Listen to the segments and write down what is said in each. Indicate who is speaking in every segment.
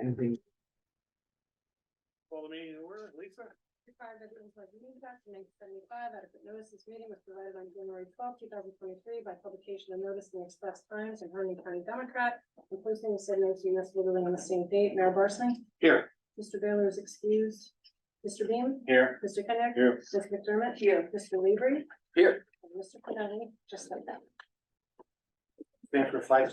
Speaker 1: anything?
Speaker 2: Call the meeting to order, Lisa?
Speaker 3: Required veterans like me back in nineteen seventy-five, adequate notice this meeting was provided on January twelfth, two thousand twenty-three by publication of notice in the Express Times and Herndon County Democrat. And posting of said notice in this literally on the same date. Mayor Barsney?
Speaker 2: Here.
Speaker 3: Mr. Baylor is excused. Mr. Beam?
Speaker 2: Here.
Speaker 3: Mr. Kenneth?
Speaker 2: Here.
Speaker 3: Mr. McDermott? Here. Mr. Labor?
Speaker 2: Here.
Speaker 3: And Mr. Pagani, just like that.
Speaker 2: Stand for five.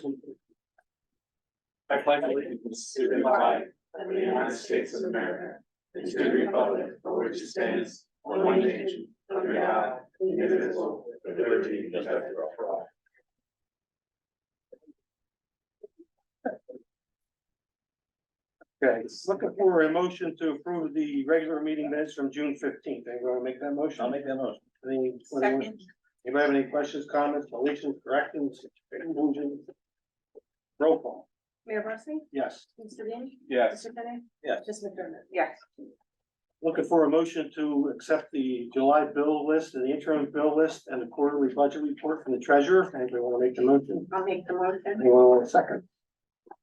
Speaker 2: I pledge allegiance to the flag of the United States of America, and to the republic for which it stands, one nation, under God, indivisible, with liberty and justice for all. Okay, just looking for a motion to approve the regular meeting minutes from June fifteenth. Anyone want to make that motion? I'll make that motion.
Speaker 4: Second,
Speaker 2: Anybody have any questions, comments, deletions, corrections, conclusions? Roll call,
Speaker 3: Mayor Barsney?
Speaker 2: yes.
Speaker 3: Mr. Beam?
Speaker 2: Yes.
Speaker 3: Mr. Kenneth?
Speaker 2: Yes.
Speaker 3: Mr. McDermott?
Speaker 4: yes,
Speaker 2: Looking for a motion to accept the July bill list and the interim bill list and the quarterly budget report from the treasurer. Anybody want to make the motion?
Speaker 4: I'll make the motion.
Speaker 2: Anyone want a second?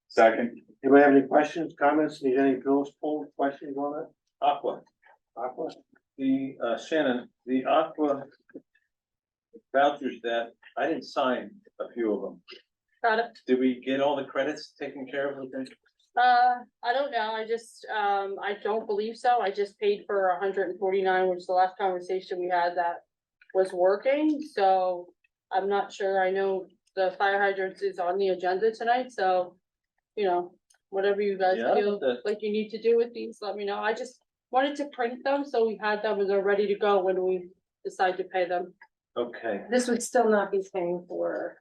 Speaker 5: Second.
Speaker 2: Anybody have any questions, comments, need any bills pulled, questions on it?
Speaker 5: Aqua,
Speaker 2: Aqua?
Speaker 5: the, uh, Shannon, the Aqua vouchers that, I didn't sign a few of them.
Speaker 6: product.
Speaker 5: Did we get all the credits taken care of? with them?
Speaker 6: Uh, I don't know, I just, um, I don't believe so, I just paid for hundred and forty-nine, which is the last conversation we had that was working, so I'm not sure, I know the fire hydrants is on the agenda tonight, so, you know, whatever you guys
Speaker 5: Yeah,
Speaker 6: feel
Speaker 5: the-
Speaker 6: like you need to do with these, let me know, I just wanted to print them, so we had them, and they're ready to go when we decide to pay them.
Speaker 5: Okay,
Speaker 3: This would still not be paying for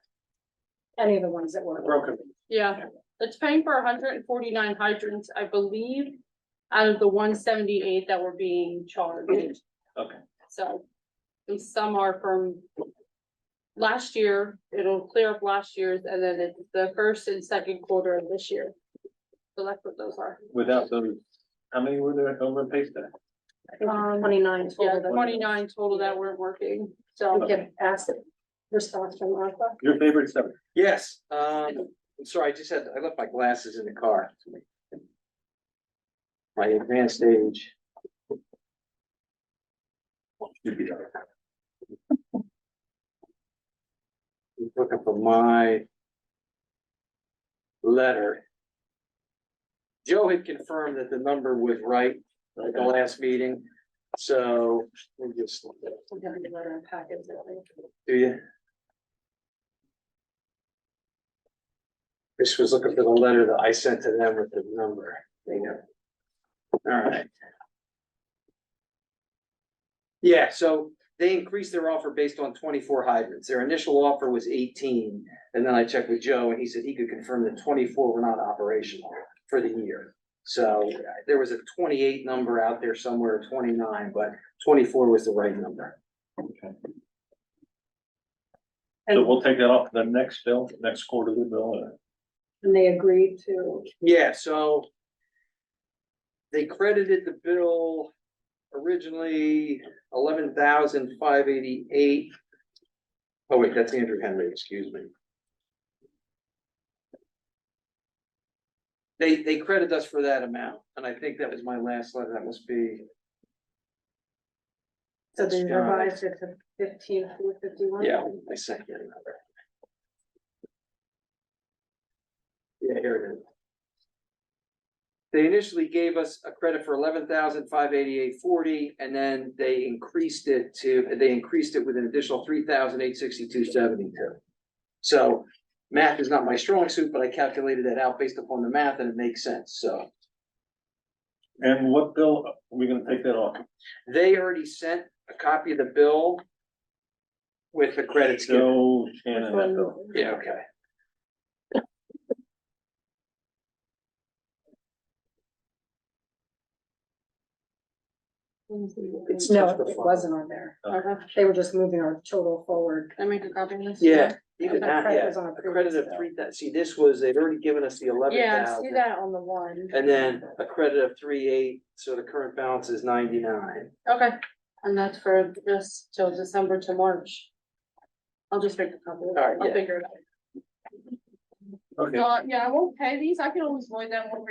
Speaker 3: any of the ones that were.
Speaker 2: Broken.
Speaker 6: Yeah, it's paying for hundred and forty-nine hydrants, I believe, out of the one seventy-eight that were being charged.
Speaker 5: Okay.
Speaker 6: So, and some are from last year, it'll clear up last year's, and then it's the first and second quarter of this year. So that's what those are,
Speaker 5: without those, how many were there over in Paystack?
Speaker 3: Twenty-nine
Speaker 6: Um, yeah,
Speaker 3: total. that-
Speaker 6: twenty-nine total that weren't working, so.
Speaker 3: We get asked response from ARPA.
Speaker 5: Your favorite seven?
Speaker 1: Yes, um, I'm sorry, I just had, I left my glasses in the car. My advanced age. Looking for my letter. Joe had confirmed that the number was right at the last meeting, so we'll just,
Speaker 3: We got the letter and packets, I think.
Speaker 1: do you? Chris was looking for the letter that I sent to them with the number. They know. All right. Yeah, so they increased their offer based on twenty-four hydrants. Their initial offer was eighteen. And then I checked with Joe and he said he could confirm that twenty-four were not operational for the year. So uh, there was a twenty-eight number out there somewhere, twenty-nine, but twenty-four was the right number.
Speaker 5: So we'll take that off the next bill, next quarterly bill. uh,
Speaker 3: And they agreed to,
Speaker 1: Yeah, so. They credited the bill originally eleven thousand five eighty-eight. Oh wait, that's Andrew Henry, excuse me. They, they credit us for that amount, and I think that was my last letter, that must be,
Speaker 3: so they
Speaker 1: That's right.
Speaker 3: revised it to fifteen, four fifty-one.
Speaker 1: yeah, I sent you another. Yeah, here it is. They initially gave us a credit for eleven thousand five eighty-eight forty, and then they increased it to, they increased it with an additional three thousand eight sixty-two seventy-two. So math is not my strong suit, but I calculated that out based upon the math and it makes sense, so.
Speaker 5: And what bill, are we gonna take that off?
Speaker 1: They already sent a copy of the bill with the credits given.
Speaker 5: So, Shannon, that bill.
Speaker 1: Yeah, okay. It's
Speaker 3: No,
Speaker 1: just the
Speaker 3: it
Speaker 1: file.
Speaker 3: wasn't on there.
Speaker 6: Okay,
Speaker 3: They were just moving our total forward.
Speaker 6: I make a copy of this.
Speaker 1: Yeah, even
Speaker 3: The
Speaker 1: that,
Speaker 3: credit
Speaker 1: yeah,
Speaker 3: was on a
Speaker 1: a credit of
Speaker 3: previous
Speaker 1: three thou- see, this was, they'd already given us the eleven
Speaker 6: Yeah, I see
Speaker 1: thousand.
Speaker 6: that on the one,
Speaker 1: And then a credit of three eight, so the current balance is ninety-nine.
Speaker 6: okay, and that's for just till December to March. I'll just make a copy of it,
Speaker 1: Alright,
Speaker 6: I'll
Speaker 1: yeah.
Speaker 6: figure it out.
Speaker 5: Okay.
Speaker 6: Uh, yeah, I won't pay these, I can always void them when we